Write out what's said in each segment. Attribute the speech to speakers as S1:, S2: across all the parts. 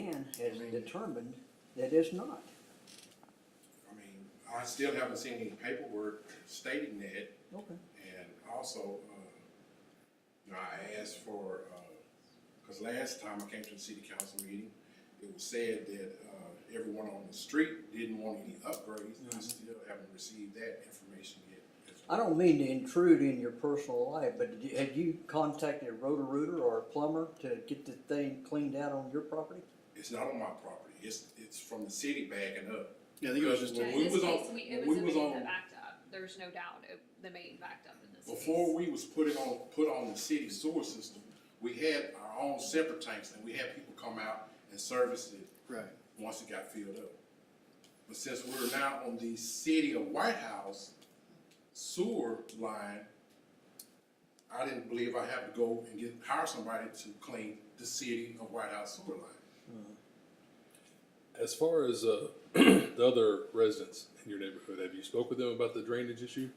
S1: has determined that it's not.
S2: I mean, I still haven't seen any paperwork stating that,
S1: Okay.
S2: and also, uh, you know, I asked for, uh, cause last time I came to the city council meeting, it was said that, uh, everyone on the street didn't want any upgrades,
S3: Mm-hmm.
S2: I still haven't received that information yet. as
S1: I
S2: well.
S1: don't mean to intrude in your personal life, but did you, had you contacted a roto-rooter or a plumber to get the thing cleaned out on your property?
S2: It's not on my property, it's, it's from the city backing up.
S3: Yeah, I think it was just,
S2: When
S4: Yeah, in
S2: we
S4: this
S2: was on-
S4: case, we,
S2: when
S4: it was
S2: we
S4: the
S2: was
S4: main
S2: on-
S4: that backed up, there's no doubt, it, the main backed up in this case.
S2: Before we was putting on, put on the city sewer system, we had our own separate tanks, and we had people come out and service it
S3: right,
S2: once it got filled up. But since we're now on the city of White House sewer line, I didn't believe I had to go and get, hire somebody to clean the city of White House sewer line.
S5: As far as uh, the other residents in your neighborhood, have you spoke with them about the drainage issue?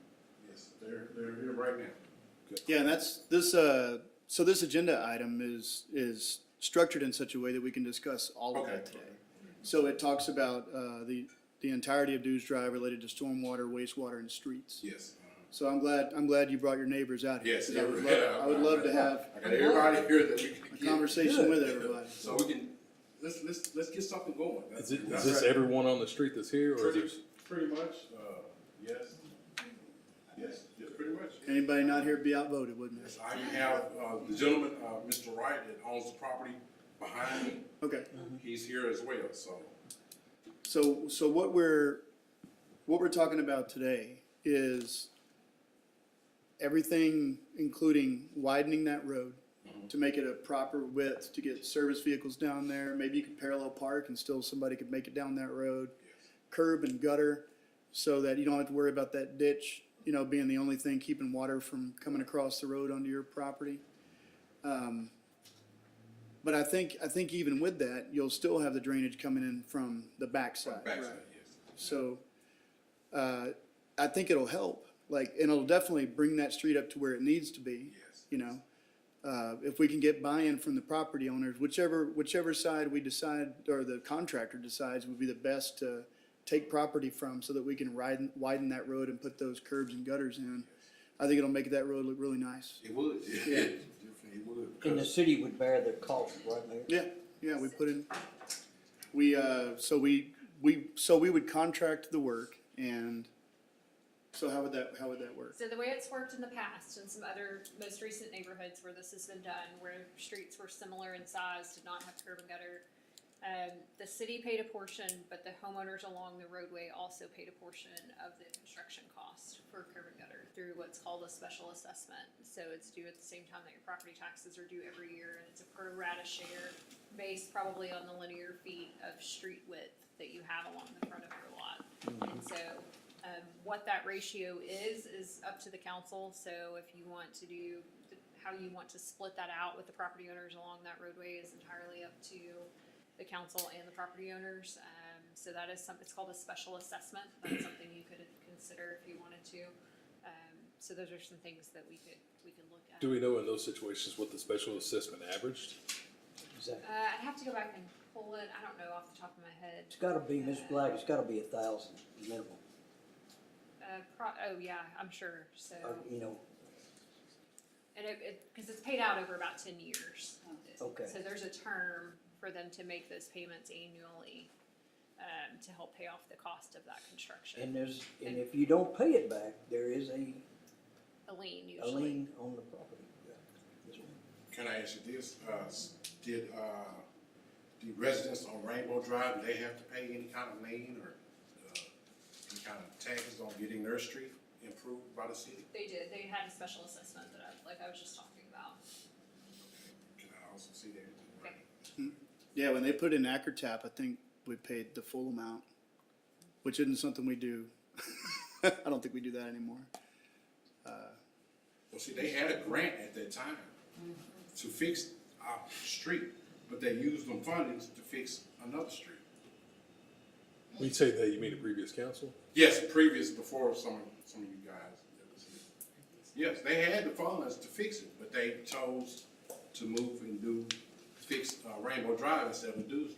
S2: Yes, they're, they're here right now.
S3: yeah, and that's, this, uh, so this agenda item is, is structured in such a way that we can discuss all of
S2: Okay.
S3: that today. So it talks about, uh, the, the entirety of dues drive related to stormwater, wastewater, and streets.
S2: Yes.
S3: So I'm glad, I'm glad you brought your neighbors out here.
S2: Yes.
S3: because I would love, I would love to have
S2: I got everybody here that we can
S3: a
S2: get.
S3: conversation with everybody.
S2: So we can, let's, let's, let's get something going.
S5: Is, it, is
S2: That's
S5: this
S2: right.
S5: everyone on the street that's here, or is
S2: Pretty,
S5: it?
S2: pretty much, uh, yes. Yes, yes, pretty much.
S3: Anybody not here be outvoted, wouldn't
S2: Yes,
S3: it?
S2: I have, uh, the gentleman, uh, Mr. Wright, that owns the property behind me,
S3: Okay.
S2: he's here as well, so.
S3: So, so what we're, what we're talking about today is everything, including widening that road to make it a proper width, to get service vehicles down there. Maybe you could parallel park and still somebody could make it down that road. Curb and gutter, so that you don't have to worry about that ditch, you know, being the only thing keeping water from coming across the road onto your property. Um, But I think, I think even with that, you'll still have the drainage coming in from the backside.
S2: Backside,
S3: right?
S2: yes.
S3: So, uh, I think it'll help, like, and it'll definitely bring that street up to where it needs to be.
S2: Yes.
S3: You know, uh, if we can get buy-in from the property owners, whichever, whichever side we decide, or the contractor decides would be the best to take property from so that we can widen, widen that road and put those curbs and gutters in. I think it'll make that road look really nice.
S2: It would, yeah, definitely it would.
S1: And the
S2: because-
S1: city would bear the cost, right, Mayor?
S3: Yeah, yeah, we put in, we, uh, so we, we, so we would contract the work and, so how would that, how would that work?
S4: So the way it's worked in the past in some other most recent neighborhoods where this has been done, where streets were similar in size, did not have curb and gutter. Um, the city paid a portion, but the homeowners along the roadway also paid a portion of the construction cost for curb and gutter through what's called a special assessment. So it's due at the same time that your property taxes are due every year and it's a pro rata share based probably on the linear feet of street width that you have along the front of your lot. And so um, what that ratio is, is up to the council, so if you want to do, th- how you want to split that out with the property owners along that roadway is entirely up to the council and the property owners, um, so that is some, it's called a special assessment, that's something you could consider if you wanted to. Um, so those are some things that we could, we could look at.
S5: Do we know in those situations what the special assessment averaged?
S1: Exactly.
S4: Uh, I'd have to go back and pull it, I don't know off the top of my head,
S1: It's gotta be, Ms. Black, it's gotta be a thousand minimum,
S4: uh, pro, oh yeah, I'm sure, so.
S1: or, uh, you know,
S4: And it, it, cause it's paid out over about ten years.
S1: Okay.
S4: So there's a term for them to make those payments annually, um, to help pay off the cost of that construction.
S1: and there's, and if you don't pay it back, there is a,
S4: A lien
S1: a
S4: usually.
S1: lien on the property. Yes, ma'am.
S2: Can I ask you this, uh, s- did, uh, the residents on Rainbow Drive, do they have to pay any kind of lien or, uh, any kind of taxes on getting their street improved by the city?
S4: They did, they had a special assessment that I, like I was just talking about.
S2: Can I also see that?
S4: Okay.
S3: Yeah, when they put in Ackertap, I think we paid the full amount, which isn't something we do. I don't think we do that anymore.
S2: Well, see, they had a grant at that time to fix our street, but they used them fundings to fix another street.
S5: When you say that, you mean the previous council?
S2: Yes, previous, before some, some of you guys. that was here. Yes, they had the funds to fix it, but they chose to move and do, fix uh, Rainbow Drive instead of Dewsbury.